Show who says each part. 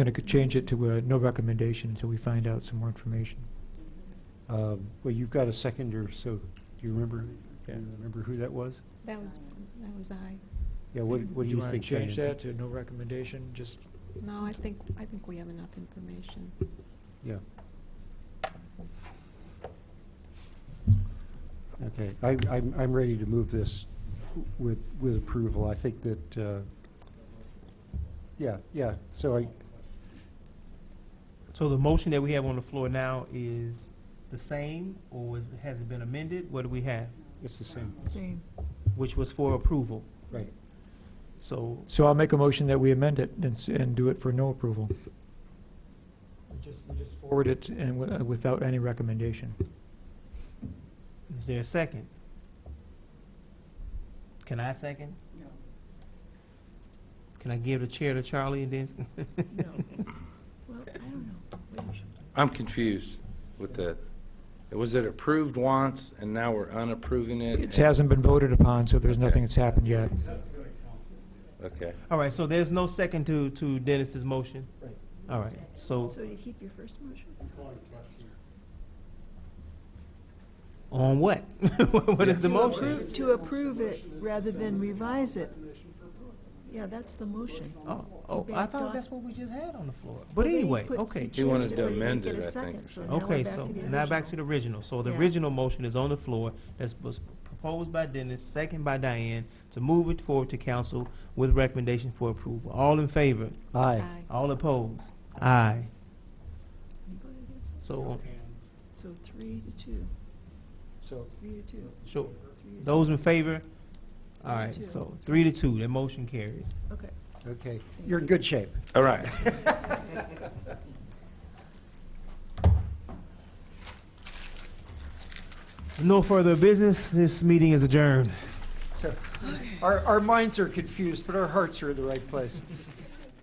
Speaker 1: Going to change it to uh, no recommendation until we find out some more information.
Speaker 2: Um, Well, you've got a seconder, so do you remember, do
Speaker 1: Yeah.
Speaker 2: you remember who that was?
Speaker 3: That was, that was I.
Speaker 2: Yeah, what, what do you think?
Speaker 1: want to change
Speaker 2: Diane?
Speaker 1: that to no recommendation, just,
Speaker 3: No, I think, I think we have enough information.
Speaker 2: Yeah. Okay, I, I'm, I'm ready to move this with, with approval. I think that, uh, yeah, yeah, so I,
Speaker 4: So the motion that we have on the floor now is the same, or was, has it been amended? What do we have?
Speaker 2: it's the same,
Speaker 5: Same.
Speaker 4: Which was for approval.
Speaker 2: right.
Speaker 4: So,
Speaker 1: so I'll make a motion that we amend it and, s- and do it for no approval. We just, we just forward it and wi- uh, without any recommendation.
Speaker 4: is there a second? Can I second?
Speaker 5: No.
Speaker 4: Can I give the chair to Charlie and then?
Speaker 5: No. Well, I don't know. Wait a second.
Speaker 6: I'm confused with that. Was it approved once, and now we're unapproving it?
Speaker 1: It hasn't been voted upon, so there's nothing that's happened yet.
Speaker 6: Okay.
Speaker 4: All right, so there's no second to, to Dennis's motion?
Speaker 2: Right.
Speaker 4: All right, so
Speaker 5: So you keep your first motion?
Speaker 4: on what? What is the
Speaker 5: To
Speaker 4: motion?
Speaker 5: approve- To approve it rather than revise it. Yeah, that's the motion.
Speaker 4: Oh, oh, I
Speaker 5: backed
Speaker 4: thought
Speaker 5: off.
Speaker 4: that's what we just had on the floor.
Speaker 5: Well,
Speaker 4: But
Speaker 5: then he
Speaker 4: anyway,
Speaker 5: put-
Speaker 4: okay.
Speaker 5: changed
Speaker 6: wanted
Speaker 5: it, but
Speaker 6: to
Speaker 5: he didn't
Speaker 6: amend
Speaker 5: get
Speaker 6: it,
Speaker 5: a
Speaker 6: I think,
Speaker 5: second,
Speaker 6: or
Speaker 5: so now we're
Speaker 4: Okay,
Speaker 5: back
Speaker 4: so
Speaker 5: to the
Speaker 4: now back to
Speaker 5: original.
Speaker 4: the original. So the
Speaker 5: Yeah.
Speaker 4: original motion is on the floor that was proposed by Dennis, second by Diane, to move it forward to council with recommendation for approval. All in favor?
Speaker 2: Aye.
Speaker 3: I,
Speaker 4: All opposed? Aye.
Speaker 5: You voted against it?
Speaker 4: So,
Speaker 5: So three to two,
Speaker 2: So,
Speaker 5: three to two.
Speaker 4: so
Speaker 5: three to
Speaker 4: those in favor? All right,
Speaker 5: Two.
Speaker 4: so three to two, that motion carries.
Speaker 5: two. Okay.
Speaker 2: okay, you're in good shape.
Speaker 6: All right.
Speaker 4: No further business. This meeting is adjourned.
Speaker 2: So, our, our minds are confused, but our hearts are in the right place.